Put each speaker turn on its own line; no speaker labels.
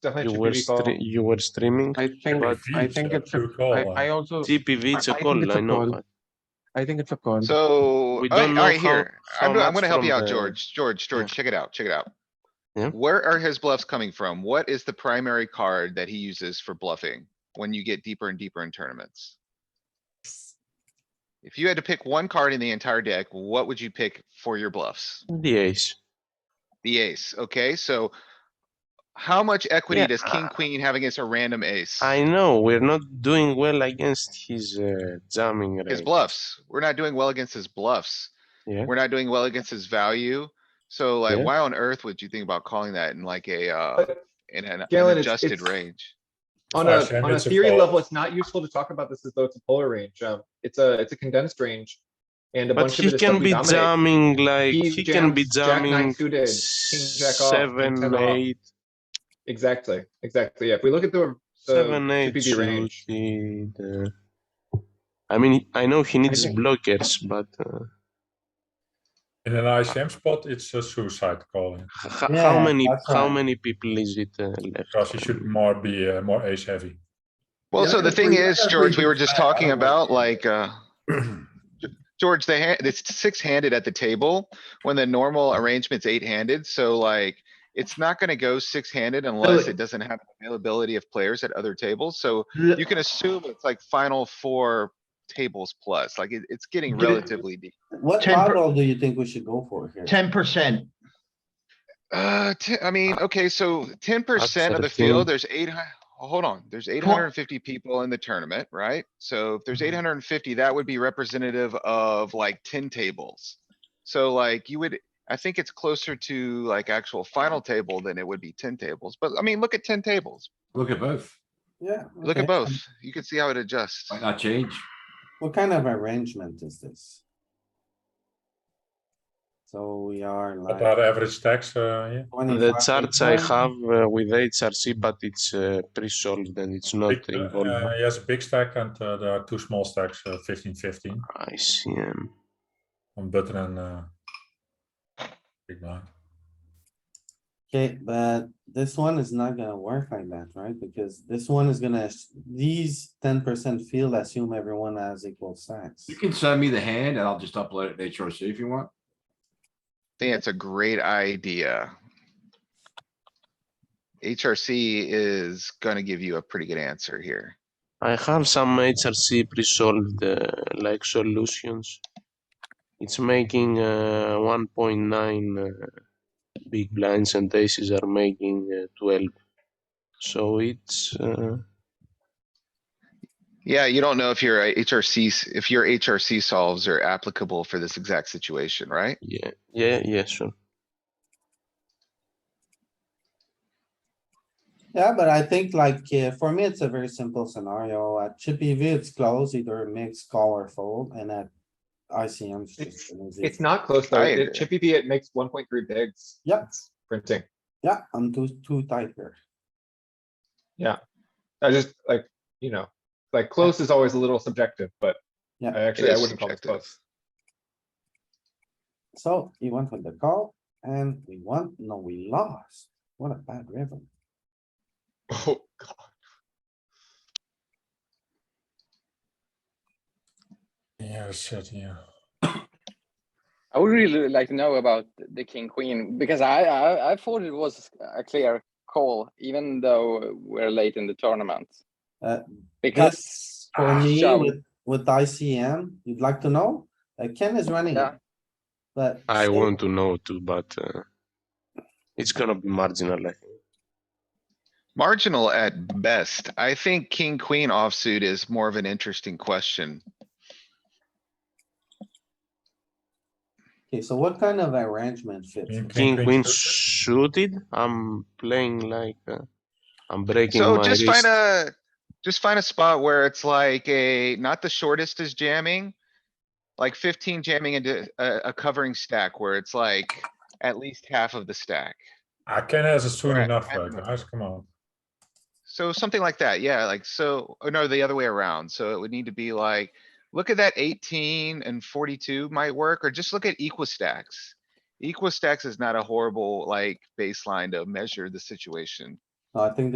definitely
You
should be
were
recalled.
stre- you were streaming.
I think, I
Reveals
think
are
it's, a-
true call,
I,
uh,
I also,
TPV, it's a
I think
call,
it's a
I know.
call.
but-
I think it's a call.
So,
Um, We
alright,
don't know
alright,
how-
here,
how
I'm, gonna- I'm
much
gonna help
from
you out,
the-
George, George, George, check it out, check it out.
Yeah.
Where are his bluffs coming from? What is the primary card that he uses for bluffing when you get deeper and deeper in tournaments? If you had to pick one card in the entire deck, what would you pick for your bluffs?
The ace.
The ace, okay, so how much equity
Yeah, uh,
does king, queen have against a random ace?
I know, we're not doing well against his uh, jamming range.
His bluffs. We're not doing well against his bluffs.
Yeah.
We're not doing well against his value. So like,
Yeah.
why on earth would you think about calling that in like a, uh,
But
in an an
Galen, it's-
adjusted
it's-
range?
On a,
Flash and
on a
it's a
theory
call.
level, it's not useful to talk about this as though it's a polar range. Um, it's a, it's a condensed range. And a
But
bunch of
he
it is stuff
can
we
be
dominate.
jamming like,
He
he can be
jams jack nine
jamming
suited, king jack off, king ten
seven,
off.
eight,
Exactly, exactly. Yeah, if we look at the,
seven,
the
eight
TPV range.
suited. uh, I mean, I know he needs
think-
blockers, but uh,
In an ICM spot, it's a suicide calling
h- how
Yeah,
many,
that's
how
right.
many people is it uh,
because
left?
he should more be uh, more ace heavy.
Well,
Yeah,
so the
if
thing
we-
is,
if
George,
we
we were
do
just
that, I
talking
don't like
about
it.
like, uh, George, the hand, it's six handed at the table when the normal arrangement's eight handed. So like, it's not gonna go six handed unless it doesn't have availability of players at other tables. So
L-
you can assume it's like final four tables plus, like it, it's getting
Get it-
relatively deep.
What
10 per-
model do you think we should go for here?
Ten percent.
Uh, t- I mean, okay, so ten percent of the
13.
field, there's eight hun- hold on, there's eight hundred and fifty people in the tournament, right? So if there's eight hundred and fifty, that would be representative of like ten tables. So like you would, I think it's closer to like actual final table than it would be ten tables, but I mean, look at ten tables.
Look at both.
Yeah.
Look
okay.
at both. You can see how it adjusts.
Might not change.
What kind of arrangement is this? So we are
What are the
like
average stacks? Uh, yeah.
The
25,
charts I
10.
have uh, with HRC, but it's uh, pre-solved and it's not
Big, uh,
involved.
uh, he has a big stack and uh, there are two small stacks, uh, 15, 15
I see. um,
on button and uh, big blind.
Okay, but this one is not gonna work like that, right? Because this one is gonna, these ten percent field assume everyone has equal size.
You can send me the hand and I'll just upload it to HRC if you want.
I think it's a great idea. HRC is gonna give you a pretty good answer here.
I have some HRC pre-solved uh, like solutions. It's making uh, 1.9 uh, big blinds and aces are making uh, 12. So it's uh,
Yeah, you don't know if your uh, HRCs, if your HRC solves are applicable for this exact situation, right?
yeah, yeah, yeah, sure.
Yeah, but I think like, uh, for me, it's a very simple scenario. At Chippy V, it's close, either mix, call or fold, and at ICM. it's just an easy-
It's not close though.
I
It-
agree.
Chippy V, it makes one point three bigs.
Yep.
It's Printing.
Yeah, I'm too, too tight here.
I just like, you know, like close is always a little subjective, but I
Yeah.
actually, I
is
wouldn't call this
subjective.
close.
So he went with the call and we won, no, we lost. What a bad river.
Oh, God.
Yeah, shit, yeah.
I would really like to know about the king queen because I, I I thought it was a clear call even though we're late in the tournament.
Uh,
because
This, for
Ah,
me,
so-
with, with ICM, you'd like to know, uh, Ken is running.
Yeah.
But.
I
still,
want to know too, but uh, it's gonna be marginal. I think.
Marginal at best. I think king, queen offsuit is more of an interesting question.
Okay, so what kind of arrangement fits?
King,
King queen
suited.
suited. I'm playing like uh, I'm breaking
So
my
just
wrist.
find a, just find a spot where it's like a, not the shortest is jamming. Like fifteen jamming into a, a covering stack where it's like at least half of the stack.
I can has it soon
Alright,
enough,
I
uh,
have enough.
guys. Come on.
So something like that, yeah, like so, or no, the other way around. So it would need to be like, look at that eighteen and forty-two might work, or just look at equal stacks. Equal stacks is not a horrible like baseline to measure the situation.
No, I think